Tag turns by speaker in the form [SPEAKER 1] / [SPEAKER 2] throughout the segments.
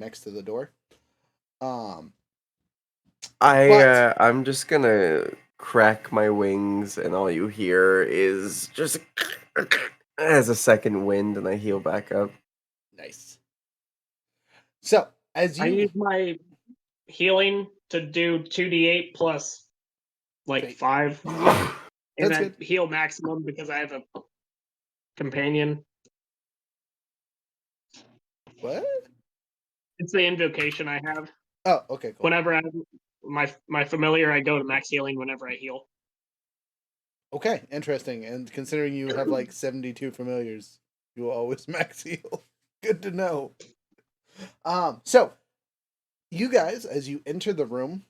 [SPEAKER 1] next to the door. Um,
[SPEAKER 2] I
[SPEAKER 1] But-
[SPEAKER 2] uh, I'm just gonna crack my wings, and all you hear is just as a second wind, and I heal back up.
[SPEAKER 1] nice. So as
[SPEAKER 3] I
[SPEAKER 1] you
[SPEAKER 3] use my healing to do two d eight plus like
[SPEAKER 1] Okay.
[SPEAKER 3] five, and
[SPEAKER 1] That's
[SPEAKER 3] I heal maximum because I have a companion.
[SPEAKER 1] what?
[SPEAKER 3] It's the invocation I have.
[SPEAKER 1] Oh, okay, cool.
[SPEAKER 3] Whenever I my my familiar, I go to max healing whenever I heal.
[SPEAKER 1] Okay, interesting. And considering you have like 72 familiars, you will always max heal. Good to know. Um, so you guys, as you enter the room,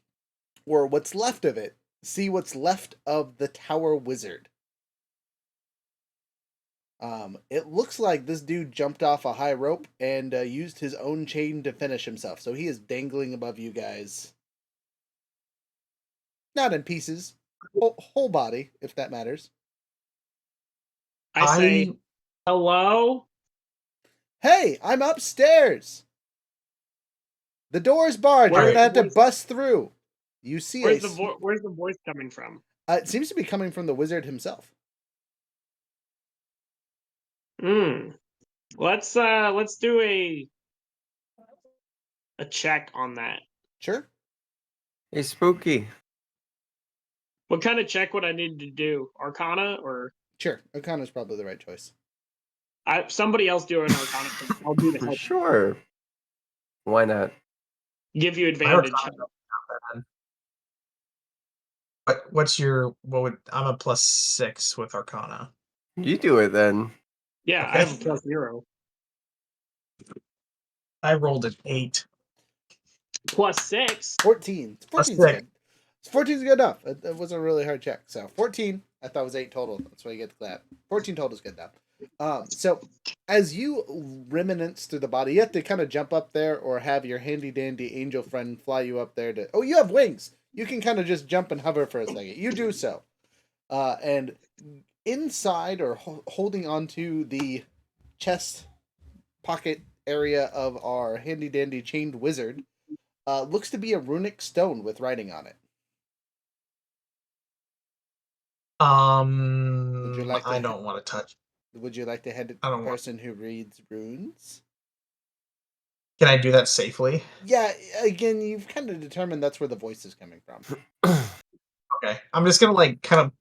[SPEAKER 1] or what's left of it, see what's left of the tower wizard. Um, it looks like this dude jumped off a high rope and uh, used his own chain to finish himself. So he is dangling above you guys. Not in pieces, whole, whole body, if that matters.
[SPEAKER 3] I, say hello.
[SPEAKER 1] Hey, I'm upstairs. The door's barred.
[SPEAKER 3] Where-
[SPEAKER 1] You're gonna have to
[SPEAKER 3] where's-
[SPEAKER 1] bust through. You see, a,
[SPEAKER 3] Where's the
[SPEAKER 1] s-
[SPEAKER 3] vo- where's the voice coming from?
[SPEAKER 1] uh, it seems to be coming from the wizard himself.
[SPEAKER 3] Hmm. Let's uh let's do a a check on that.
[SPEAKER 1] Sure.
[SPEAKER 2] Hey, spooky.
[SPEAKER 3] What kind of check would I need to do? Arcana or
[SPEAKER 1] Sure. O'Connor's probably the right choice.
[SPEAKER 3] I somebody else do an arcana. check. I'll do the help.
[SPEAKER 2] Sure. Why not?
[SPEAKER 3] Give you
[SPEAKER 4] My arcana
[SPEAKER 3] advantage.
[SPEAKER 4] doesn't count that. What what's your what would I'm a plus six with Arcana.
[SPEAKER 2] You do it then.
[SPEAKER 3] Yeah, I have a plus zero.
[SPEAKER 4] I rolled an eight.
[SPEAKER 3] Plus six.
[SPEAKER 1] 14.
[SPEAKER 4] Plus
[SPEAKER 1] 14's
[SPEAKER 4] six.
[SPEAKER 1] good. 14's good enough. It, it wasn't a really hard check. So 14. I thought it was 8 total. That's why you get the clap. 14 total is good enough. Um, so as you remnants through the body, you have to kind of jump up there or have your handy dandy angel friend fly you up there to. Oh, you have wings. You can kind of just jump and hover for a second. You do so. Uh, and inside or ho- holding onto the chest pocket area of our handy dandy chained wizard uh, looks to be a runic stone with writing on it.
[SPEAKER 4] Um
[SPEAKER 1] you like
[SPEAKER 4] I
[SPEAKER 1] to-
[SPEAKER 4] don't want to touch.
[SPEAKER 1] Would you like to hand it to
[SPEAKER 4] I
[SPEAKER 1] the
[SPEAKER 2] Oh.
[SPEAKER 4] don't want-
[SPEAKER 1] person who reads runes?
[SPEAKER 4] Can I do that safely?
[SPEAKER 1] Yeah, again, you've kind of determined that's where the voice is coming from.
[SPEAKER 4] Okay. I'm just gonna like kind of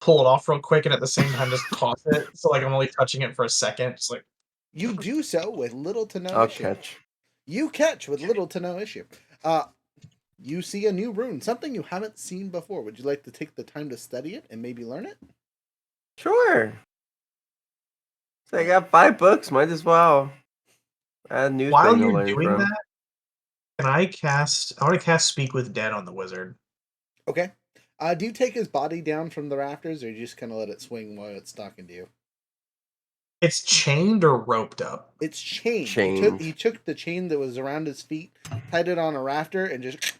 [SPEAKER 4] pull it off real quick and at the same time just toss it. So like I'm only touching it for a second. Just like
[SPEAKER 1] You do so with little to no
[SPEAKER 3] Oh,
[SPEAKER 2] I'll
[SPEAKER 1] issue.
[SPEAKER 2] catch.
[SPEAKER 1] You catch with little to no issue. Uh, you see a new rune, something you haven't seen before. Would you like to take the time to study it and maybe learn it?
[SPEAKER 2] Sure. So I got five books. Might as well. Add a new
[SPEAKER 4] while
[SPEAKER 2] thing to
[SPEAKER 4] you're
[SPEAKER 2] learn
[SPEAKER 4] doing
[SPEAKER 2] from.
[SPEAKER 4] that, can I cast I want to cast speak with dead on the wizard.
[SPEAKER 1] Okay. Uh, do you take his body down from the rafters, or you just kind of let it swing while it's talking to you?
[SPEAKER 4] It's chained or roped up.
[SPEAKER 1] It's chained. He took,
[SPEAKER 2] Chained.
[SPEAKER 1] he took the chain that was around his feet, tied it on a rafter, and just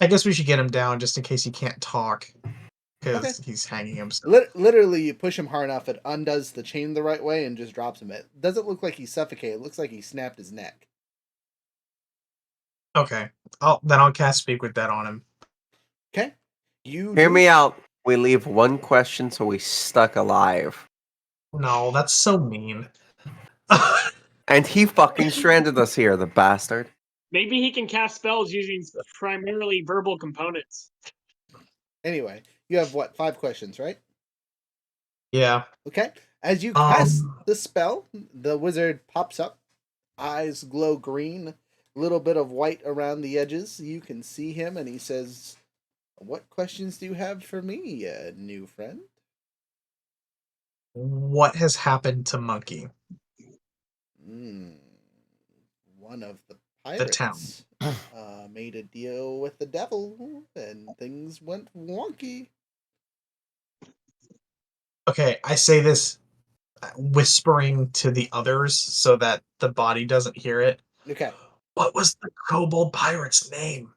[SPEAKER 4] I guess we should get him down just in case he can't talk. Because
[SPEAKER 1] Okay.
[SPEAKER 4] he's hanging himself.
[SPEAKER 1] Lit- literally, you push him hard enough, it undoes the chain the right way and just drops him. It doesn't look like he suffocated. It looks like he snapped his neck.
[SPEAKER 4] Okay. I'll then I'll cast speak with that on him.
[SPEAKER 1] Okay, you
[SPEAKER 2] Hear
[SPEAKER 1] do-
[SPEAKER 2] me out. We leave one question, so we stuck alive.
[SPEAKER 4] No, that's so mean.
[SPEAKER 2] And he fucking stranded us here, the bastard.
[SPEAKER 3] Maybe he can cast spells using s- primarily verbal components.
[SPEAKER 1] Anyway, you have what five questions, right?
[SPEAKER 4] yeah.
[SPEAKER 1] Okay. As you
[SPEAKER 4] Um,
[SPEAKER 1] cast the spell, the wizard pops up. Eyes glow green, little bit of white around the edges. You can see him, and he says, "What questions do you have for me, uh, new friend?"
[SPEAKER 4] What has happened to Monkey?
[SPEAKER 1] Mm, one of the
[SPEAKER 4] The
[SPEAKER 1] pirates
[SPEAKER 4] town.
[SPEAKER 1] uh, made a deal with the devil, and things went wonky.
[SPEAKER 4] Okay, I say this uh, whispering to the others so that the body doesn't hear it.
[SPEAKER 1] Okay,
[SPEAKER 4] What was the kobold pirate's name?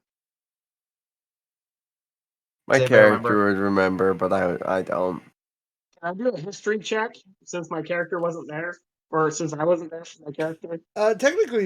[SPEAKER 2] My
[SPEAKER 4] Does anybody remember?
[SPEAKER 2] character would remember, but I I don't.
[SPEAKER 3] Can I do a history check since my character wasn't there?
[SPEAKER 5] Or since I wasn't there for my character.
[SPEAKER 3] Uh, technically,